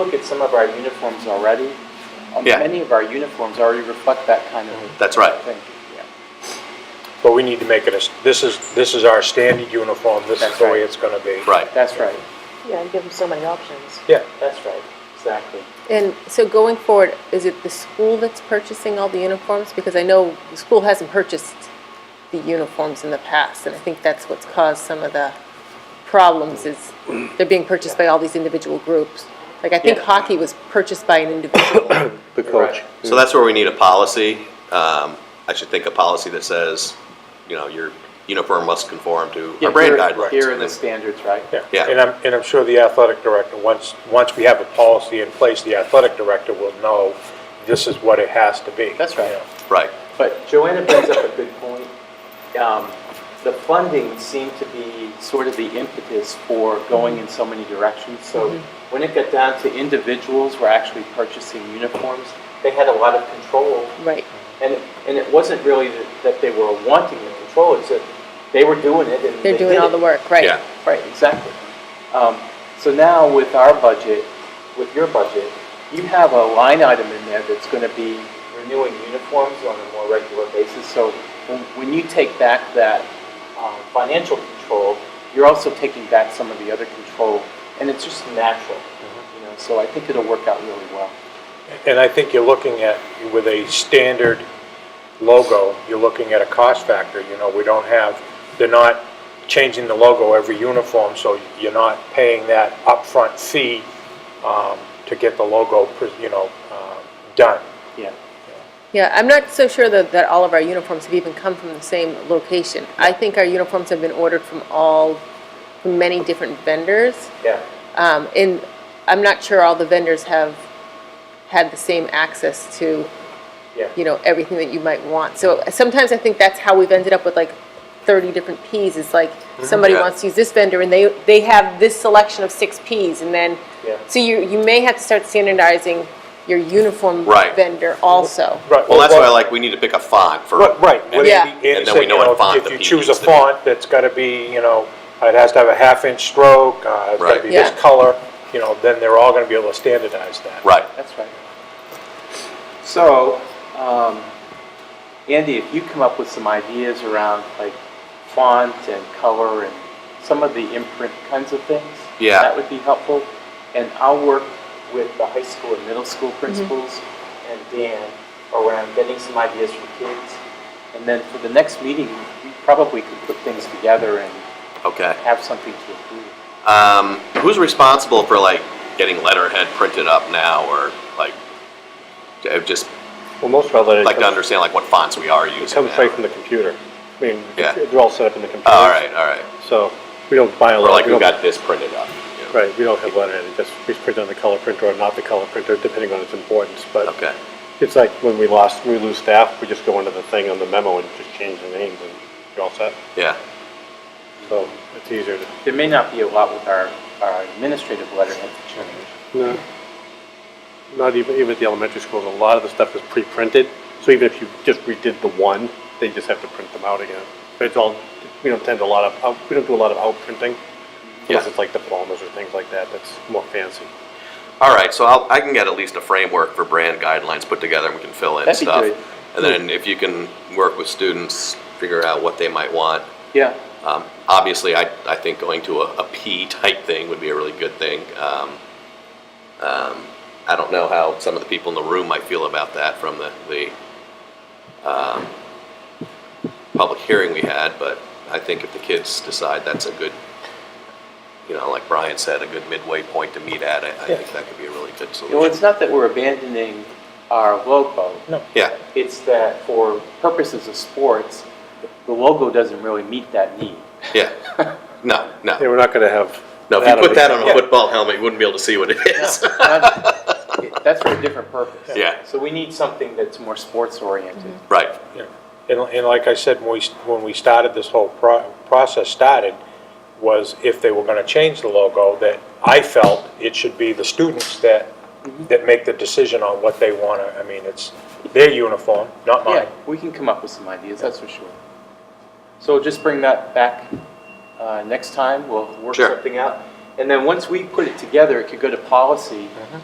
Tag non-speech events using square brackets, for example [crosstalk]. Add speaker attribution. Speaker 1: Look at some of our uniforms already. Um,
Speaker 2: Yeah.
Speaker 1: Many of our uniforms already reflect that kind of.
Speaker 2: That's right.
Speaker 1: thinking, yeah.
Speaker 3: But we need to make it, a- this is, this is our standard uniform, this is
Speaker 1: That's
Speaker 3: the way
Speaker 1: right.
Speaker 3: it's gonna be.
Speaker 2: Right.
Speaker 1: That's right,
Speaker 4: Yeah, and give them so many options.
Speaker 3: Yeah,
Speaker 1: that's right, exactly.
Speaker 5: And so going forward, is it the school that's purchasing all the uniforms? Because I know the school hasn't purchased the uniforms in the past, and I think that's what's caused some of the problems is they're being purchased by all these individual groups. Like, I think
Speaker 1: Yeah.
Speaker 5: hockey was purchased by an individual.
Speaker 1: [coughs]
Speaker 6: The coach.
Speaker 2: So that's where we need a policy. Um, I should think a policy that says, you know, your uniform must conform to
Speaker 1: Yeah,
Speaker 2: our brand
Speaker 1: here-
Speaker 2: guidelines.
Speaker 1: Here are the standards, right?
Speaker 2: Yeah.
Speaker 3: yeah. And I'm, and I'm sure the athletic director, once, once we have a policy in place, the athletic director will know this is what it has to be.
Speaker 1: That's right.
Speaker 3: you know.
Speaker 2: Right.
Speaker 1: But Joanna brings up a good point. Um, The funding seemed to be sort of the impetus for going in so many directions. So
Speaker 6: Mm-hmm.
Speaker 1: when it got down to individuals were actually purchasing uniforms, they had a lot of control.
Speaker 5: Right.
Speaker 1: And, and it wasn't really that- that they were wanting the control, it's that they were doing it and they
Speaker 5: They're doing
Speaker 1: did
Speaker 5: all
Speaker 1: it.
Speaker 5: the work, right?
Speaker 2: Yeah.
Speaker 1: Right, exactly. Um, So now with our budget, with your budget, you have a line item in there that's going to be renewing uniforms on a more regular basis. So when- when you take back that um, financial control, you're also taking back some of the other control, and it's just natural, you know, so I think it'll work out really well.
Speaker 3: And I think you're looking at, with a standard logo, you're looking at a cost factor, you know, we don't have, they're not changing the logo every uniform, so you're not paying that upfront fee um, to get the logo, pres- you know, um, done.
Speaker 1: Yeah.
Speaker 5: Yeah, I'm not so sure that, that all of our uniforms have even come from the same location. I think our uniforms have been ordered from all, from many different vendors.
Speaker 1: Yeah.
Speaker 5: Um, And I'm not sure all the vendors have had the same access to,
Speaker 1: Yeah.
Speaker 5: you know, everything that you might want. So sometimes I think that's how we've ended up with like 30 different Ps. It's like, somebody
Speaker 2: Mm-hmm. Yeah.
Speaker 5: wants to use this vendor and they, they have this selection of six Ps. And then,
Speaker 1: Yeah.
Speaker 5: so you, you may have to start standardizing your uniform
Speaker 2: Right.
Speaker 5: vendor also.
Speaker 3: Right.
Speaker 2: Well, that's why, like, we need to pick a font for.
Speaker 3: Right, Right.
Speaker 2: And-
Speaker 5: Yeah.
Speaker 3: And he
Speaker 2: And then we
Speaker 3: said,
Speaker 2: know
Speaker 3: you
Speaker 2: what
Speaker 3: know,
Speaker 2: font
Speaker 3: if- if
Speaker 2: the
Speaker 3: you
Speaker 2: P
Speaker 3: choose a
Speaker 2: needs to be.
Speaker 3: font, that's gotta be, you know, it has to have a half-inch stroke, uh, it's gotta
Speaker 2: Right.
Speaker 3: be this
Speaker 5: Yeah.
Speaker 3: color, you know, then they're all gonna be able to standardize that.
Speaker 2: Right.
Speaker 1: That's right. So, um, Andy, if you come up with some ideas around like font and color and some of the imprint kinds of things,
Speaker 2: Yeah.
Speaker 1: that would be helpful. And I'll work with the high school and middle school principals and Dan around getting some ideas for kids. And then for the next meeting, we probably could put things together and
Speaker 2: Okay.
Speaker 1: have something to approve.
Speaker 2: Um, who's responsible for like getting letterhead printed up now, or like, j- just
Speaker 6: Well, most of our letters.
Speaker 2: like to
Speaker 6: comes-
Speaker 2: understand like what fonts we are using?
Speaker 6: It comes
Speaker 2: now.
Speaker 6: straight from the computer. I mean,
Speaker 2: Yeah.
Speaker 6: they're all set up in the computer.
Speaker 2: All right. All right.
Speaker 6: So we don't buy a
Speaker 2: Or
Speaker 6: lot.
Speaker 2: like
Speaker 6: we
Speaker 2: who
Speaker 6: don't-
Speaker 2: got this printed up? you know?
Speaker 6: Right, we don't have letterhead. It just, we print on the color printer or not the color printer, depending on its importance. But
Speaker 2: Okay.
Speaker 6: it's like when we lost, when we lose staff, we just go into the thing on the memo and just change the names and you're all set.
Speaker 2: Yeah.
Speaker 6: So it's easier to.
Speaker 1: There may not be a lot with our, our administrative letterhead to change.
Speaker 6: No. Not even, even at the elementary schools, a lot of the stuff is pre-printed, so even if you just redid the one, they just have to print them out again. It's all, we don't tend to a lot of, out- we don't do a lot of outprinting,
Speaker 2: Yeah.
Speaker 6: unless it's like diplomas or things like that, that's more fancy.
Speaker 2: All right, so I'll, I can get at least a framework for brand guidelines put together, and we can fill in
Speaker 1: That'd be
Speaker 2: stuff.
Speaker 1: good.
Speaker 2: And then if you can work with students, figure out what they might want.
Speaker 1: Yeah.
Speaker 2: Um, obviously, I, I think going to a, a P type thing would be a really good thing. Um, um, I don't know how some of the people in the room might feel about that from the, the um, public hearing we had, but I think if the kids decide that's a good, you know, like Brian said, a good midway point to meet at, I, I think that could be a really good
Speaker 1: You know,
Speaker 2: solution.
Speaker 1: it's not that we're abandoning our logo.
Speaker 2: Yeah,
Speaker 1: It's that for purposes of sports, the logo doesn't really meet that need. [laughs]
Speaker 2: yeah. No,
Speaker 6: Yeah,
Speaker 2: no.
Speaker 6: we're not gonna have.
Speaker 2: No, if you put that
Speaker 6: on
Speaker 2: on a football helmet, you wouldn't be able to see what it is.
Speaker 1: Not- That's for a different purpose.
Speaker 2: Yeah.
Speaker 1: So we need something that's more sports oriented.
Speaker 2: [laughs] Right,
Speaker 3: Yeah. And, and like I said, when we, when we started, this whole pro- process started, was if they were gonna change the logo, that I felt it should be the students that, that make the decision on what they wanna, I mean, it's their uniform, not mine.
Speaker 1: Yeah, we can come up with some ideas, that's for sure. So just bring that back uh, next time, we'll work
Speaker 2: Sure.
Speaker 1: something out. And then once we put it together, it could go to policy,